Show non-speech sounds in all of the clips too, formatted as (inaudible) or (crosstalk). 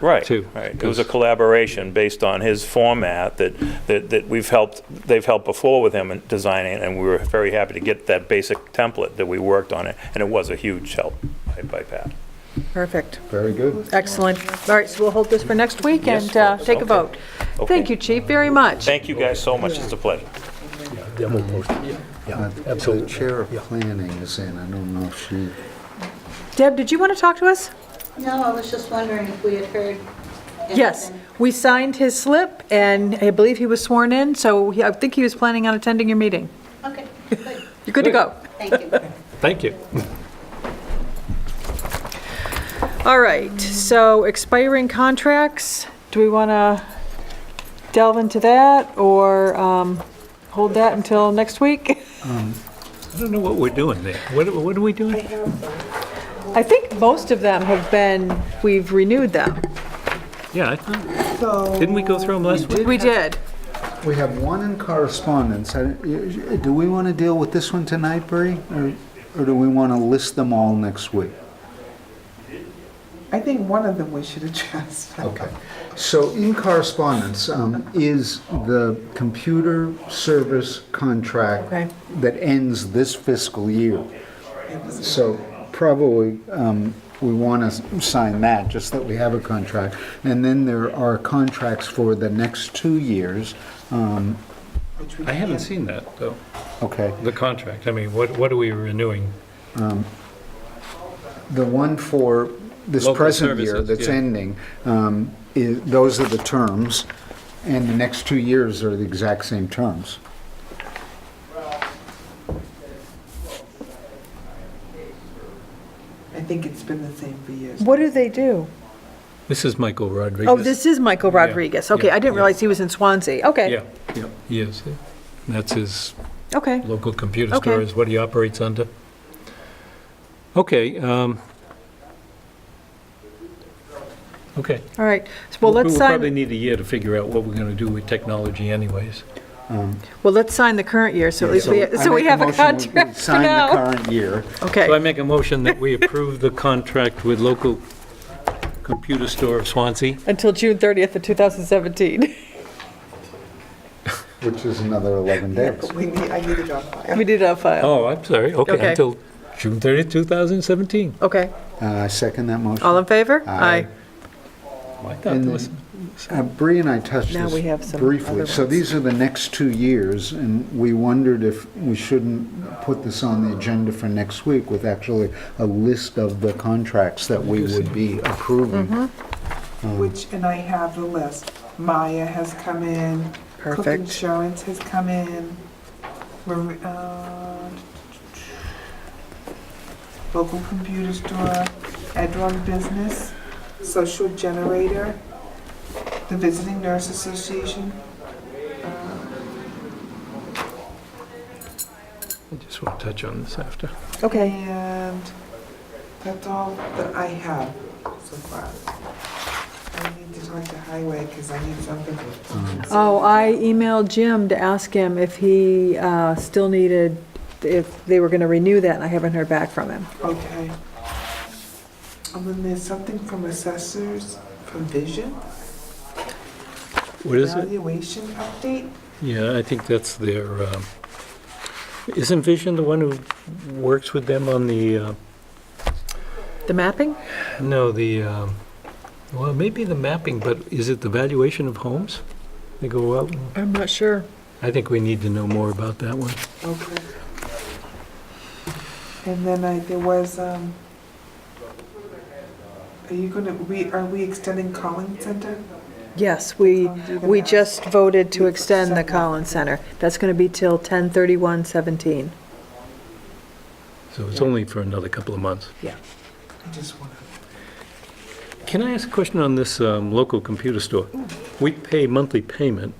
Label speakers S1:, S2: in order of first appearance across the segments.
S1: Right,
S2: too.
S1: right. It was a collaboration based on his format that, that, that we've helped, they've helped before with him in designing, and we were very happy to get that basic template that we worked on it, and it was a huge help by- by Pat.
S3: Perfect.
S4: Very good.
S3: Excellent. All right, so we'll hold this for next week
S1: Yes,
S3: and uh,
S1: folks,
S3: take a
S1: okay.
S3: vote. Thank
S1: Okay.
S3: you, Chief, very much.
S1: Thank you guys so much, it's a pleasure.
S5: Yeah, we'll post it. Yeah,
S4: The
S5: absolutely.
S4: chair of
S5: Yeah.
S4: planning is in, I don't know if she,
S3: Deb, did you want to talk to us?
S6: No, I was just wondering if we had heard anything.
S3: Yes, we signed his slip, and I believe he was sworn in, so he- I think he was planning on attending your meeting.
S6: Okay, good,
S3: You're good to go.
S6: thank you.
S2: Thank you.
S3: All right, so expiring contracts, do we want to delve into that, or um, hold that until next week? (laughs)
S2: I don't know what we're doing there. What, are- what are we doing?
S3: I think most of them have been, we've renewed them.
S2: Yeah, I thought, didn't we go through them last week?
S3: We did.
S4: we have one in correspondence. I- Do we want to deal with this one tonight, Bree? Or or do we want to list them all next week?
S7: I think one of them we should address.
S4: Okay. So in correspondence um, is the computer service contract
S3: Okay.
S4: that ends this fiscal year. So probably um, we want to sign that, just that we have a contract. And then there are contracts for the next two years. Um,
S2: I haven't seen that, though,
S4: Okay.
S2: the contract. I mean, what, what are we renewing?
S4: The one for this
S2: Local
S4: present year
S2: services,
S4: that's
S2: yeah.
S4: ending, um, is- those are the terms, and the next two years are the exact same terms.
S7: I think it's been the same for years.
S3: What do they do?
S2: This is Michael Rodriguez.
S3: Oh, this is Michael
S2: Yeah,
S3: Rodriguez. Okay,
S2: yeah,
S3: I didn't
S2: yeah.
S3: realize he was in Swansea. Okay,
S2: Yeah, yeah, he is. That's his
S3: okay.
S2: local computer
S3: Okay.
S2: store is what he operates under. Okay. um, Okay.
S3: All right, So, well,
S2: We-
S3: let's
S2: We'll probably
S3: sign,
S2: need a year to figure out what we're going to do with technology anyways.
S3: well, let's sign the current year, so at least we,
S4: I
S3: so we
S4: make
S3: have a
S4: motion we
S3: contract for
S4: Sign the
S3: now.
S4: current year.
S3: Okay,
S2: So I make a motion that we approve the contract with local computer store of Swansea.
S3: until June 30th of 2017.
S4: Which is another 11 days.
S7: We need, I need it on
S3: (laughs)
S7: file.
S3: We did it on file.
S2: Oh, I'm sorry,
S3: Okay.
S2: okay, until June 30th, 2017.
S3: Okay,
S4: Uh, I second that motion.
S3: all in favor?
S4: Aye.
S2: Oh, I thought
S4: And
S2: there
S4: then-
S2: was-
S4: Uh, Bree and I touched
S3: Now we have
S4: this
S3: some
S4: briefly.
S3: other
S4: So
S3: ones.
S4: these are the next two years, and we wondered if we shouldn't put this on the agenda for next week with actually a list of the contracts that we would be
S3: Mm-hmm.
S4: approving.
S7: Which, and I have the list. Maya has come in. Cook
S3: Perfect.
S7: Insurance has come in. Mar- uh, Local computer store, Edron Business, Social Generator, the Visiting Nurse Association.
S2: I just want to touch on this after.
S3: Okay,
S7: And that's all that I have so far. I need to talk to Highway because I need something.
S3: oh, I emailed Jim to ask him if he uh, still needed, if they were going to renew that, and I haven't heard back from him.
S7: Okay. And then there's something from assessors from Vision,
S2: What is it?
S7: valuation update.
S2: Yeah, I think that's their, um, isn't Vision the one who works with them on the, uh,
S3: The mapping?
S2: no, the, um, well, maybe the mapping, but is it the valuation of homes? They go out, and-
S3: I'm not sure.
S2: I think we need to know more about that one.
S7: Okay. And then I, there was, um, are you gonna, we, are we extending calling center?
S3: Yes, we, we just voted to extend the
S7: Second.
S3: Collins Center. That's going to be till 10/31/17.
S2: So it's only for another couple of months.
S7: I just wanna.
S2: Can I ask a question on this um, local computer store? We pay monthly payment,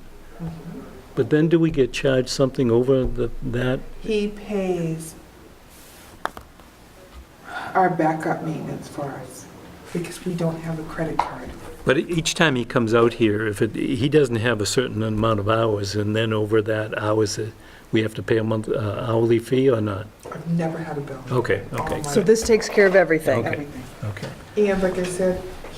S2: but then do we get charged something over the- that?
S7: He pays our backup maintenance for us because we don't have a credit card.
S2: But each time he comes out here, if it, he doesn't have a certain amount of hours, and then over that hours, uh, we have to pay a month uh, hourly fee or not?
S7: I've never had a bill.
S2: Okay, okay,
S7: All my-
S3: So this takes care of everything.
S2: Okay.
S7: Everything.
S2: okay.
S7: And like I said,